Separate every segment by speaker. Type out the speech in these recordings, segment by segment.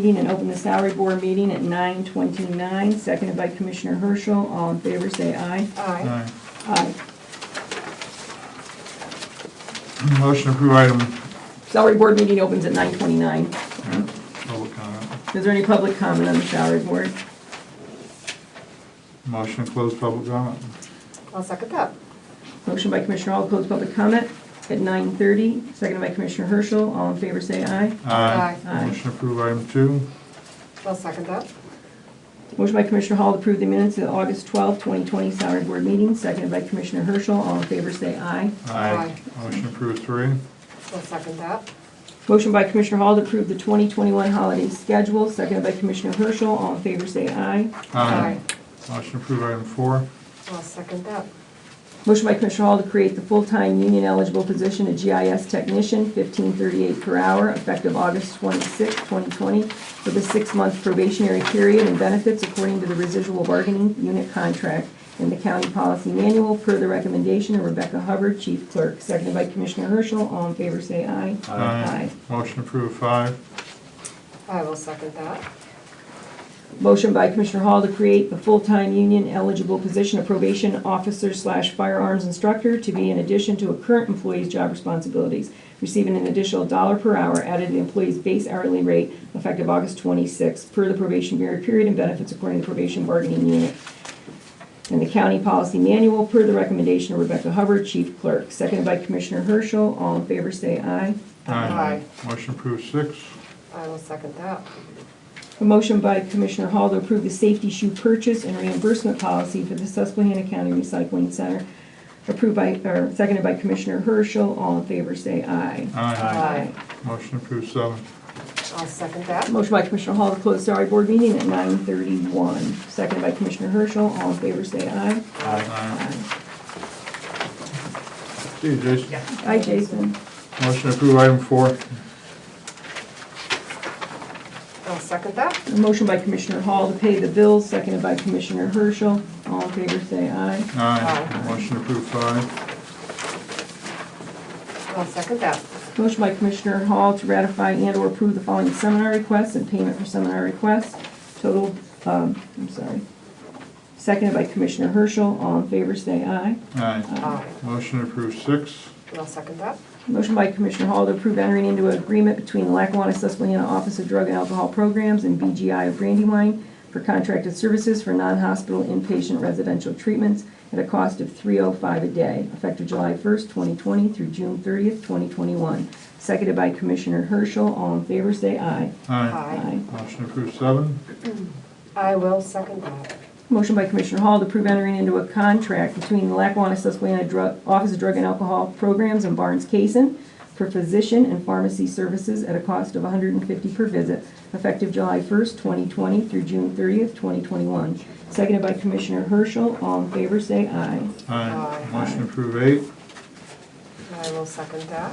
Speaker 1: meeting and open the salary board meeting at 9:29, seconded by Commissioner Herschel. All in favor, say aye.
Speaker 2: Aye.
Speaker 3: Aye.
Speaker 1: Aye.
Speaker 3: Motion to approve item,
Speaker 1: Salary board meeting opens at 9:29.
Speaker 3: public comment.
Speaker 1: Is there any public comment on the salary board?
Speaker 3: Motion to close public comment.
Speaker 2: I'll second that.
Speaker 1: Motion by Commissioner Hall, to close public comment at 9:30, seconded by Commissioner Herschel. All in favor, say aye. Aye.
Speaker 3: Motion to approve item two.
Speaker 2: I'll second that.
Speaker 1: Motion by Commissioner Hall to approve the minutes of the August 12, 2020 salary board meeting, seconded by Commissioner Herschel. All in favor, say aye.
Speaker 2: Aye.
Speaker 3: Motion to approve three.
Speaker 2: I'll second that.
Speaker 1: Motion by Commissioner Hall to approve the 2021 holiday schedule, seconded by Commissioner Herschel. All in favor, say aye.
Speaker 3: Motion to approve item four.
Speaker 2: I'll second that.
Speaker 1: Motion by Commissioner Hall to create the full-time union eligible position of GIS technician, $15.38 per hour, effective August 26, 2020, with a six-month probationary period and benefits according to the residual bargaining unit contract in the county policy manual, per the recommendation of Rebecca Hubbard, chief clerk, seconded by Commissioner Herschel. All in favor, say aye.
Speaker 3: Motion to approve five.
Speaker 2: I will second that.
Speaker 1: Motion by Commissioner Hall to create the full-time union eligible position of probation officer slash firearms instructor to be in addition to a current employee's job responsibilities, receiving an additional dollar per hour added to the employee's base hourly rate effective August 26th, per the probationary period and benefits according to the probation bargaining unit and the county policy manual, per the recommendation of Rebecca Hubbard, chief clerk, seconded by Commissioner Herschel. All in favor, say aye.
Speaker 2: Aye.
Speaker 3: Motion to approve six.
Speaker 2: I will second that.
Speaker 1: A motion by Commissioner Hall to approve the safety shoe purchase and reimbursement policy for the Susquehanna County Recycling Center, approved by, or seconded by Commissioner Herschel. All in favor, say aye.
Speaker 2: Aye.
Speaker 3: Motion to approve seven.
Speaker 2: I'll second that.
Speaker 1: Motion by Commissioner Hall to close salary board meeting at 9:31, seconded by Commissioner Herschel. All in favor, say aye.
Speaker 3: Aye.
Speaker 1: Aye.
Speaker 3: See you, Jason.
Speaker 1: Aye, Jason.
Speaker 3: Motion to approve item four.
Speaker 2: I'll second that.
Speaker 1: A motion by Commissioner Hall to pay the bills, seconded by Commissioner Herschel. All in favor, say aye.
Speaker 3: Aye. Motion to approve five.
Speaker 2: I'll second that.
Speaker 1: Motion by Commissioner Hall to ratify and/or approve the following seminar requests and payment for seminar requests. Total, um, I'm sorry. Seconded by Commissioner Herschel. All in favor, say aye.
Speaker 3: Aye.
Speaker 2: Aye.
Speaker 3: Motion to approve six.
Speaker 2: I'll second that.
Speaker 1: Motion by Commissioner Hall to approve entering into an agreement between the Lackawanna Susquehanna Office of Drug and Alcohol Programs and BGI of Brandywine for contracted services for non-hospital inpatient residential treatments at a cost of three oh five a day, effective July first, twenty twenty through June thirtieth, twenty twenty-one. Seconded by Commissioner Herschel. All in favor, say aye.
Speaker 3: Aye.
Speaker 2: Aye.
Speaker 3: Motion to approve seven.
Speaker 2: I will second that.
Speaker 1: Motion by Commissioner Hall to approve entering into a contract between the Lackawanna Susquehanna Drug, Office of Drug and Alcohol Programs and Barnes Kason for physician and pharmacy services at a cost of $150 per visit, effective July 1st, 2020 through June 30th, 2021. Seconded by Commissioner Herschel. All in favor, say aye.
Speaker 3: Aye.
Speaker 2: Aye.
Speaker 3: Motion to approve eight.
Speaker 2: I will second that.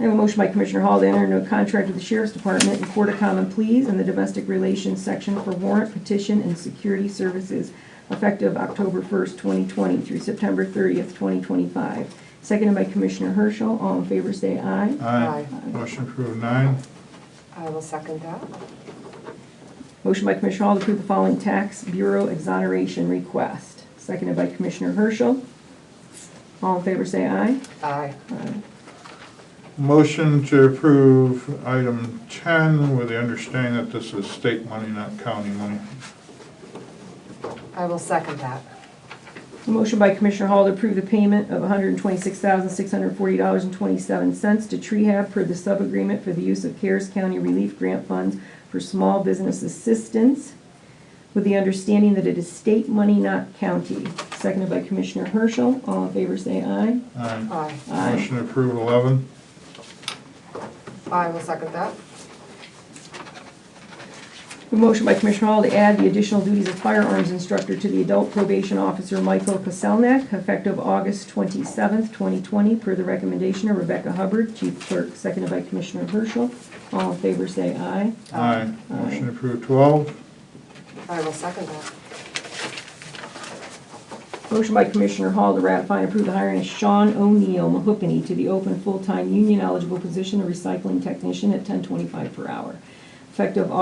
Speaker 1: I have a motion by Commissioner Hall to enter into a contract with the Sheriff's Department and Court of Common Pleas in the Domestic Relations Section for warrant petition and security services effective October 1st, 2020 through September 30th, 2025. Seconded by Commissioner Herschel. All in favor, say aye.
Speaker 3: Aye.
Speaker 2: Aye.
Speaker 3: Motion to approve nine.
Speaker 2: I will second that.
Speaker 1: Motion by Commissioner Hall to approve the following tax bureau exoneration request. Seconded by Commissioner Herschel. All in favor, say aye.
Speaker 2: Aye.
Speaker 3: Motion to approve item 10 with the understanding that this is state money, not county money.
Speaker 2: I will second that.
Speaker 1: A Motion by Commissioner Hall to approve the payment of $126,640.27 to Trehab per the subagreement for the use of CARES County Relief Grant Funds for small business assistance, with the understanding that it is state money, not county. Seconded by Commissioner Herschel. All in favor, say aye.
Speaker 3: Aye.
Speaker 2: Aye.
Speaker 1: Aye.
Speaker 3: Motion to approve 11.
Speaker 2: I will second that.
Speaker 1: A motion by Commissioner Hall to add the additional duties of firearms instructor to the adult probation officer Michael Paselnak, effective August 27th, 2020, per the recommendation of Rebecca Hubbard, chief clerk, seconded by Commissioner Herschel. All in favor, say aye.
Speaker 3: Aye. Motion to approve 12.
Speaker 2: I will second that.
Speaker 1: Motion by Commissioner Hall to ratify and approve the hiring of Sean O'Neill Mahookany to the open full-time union eligible position of recycling technician at 1025 per hour, effective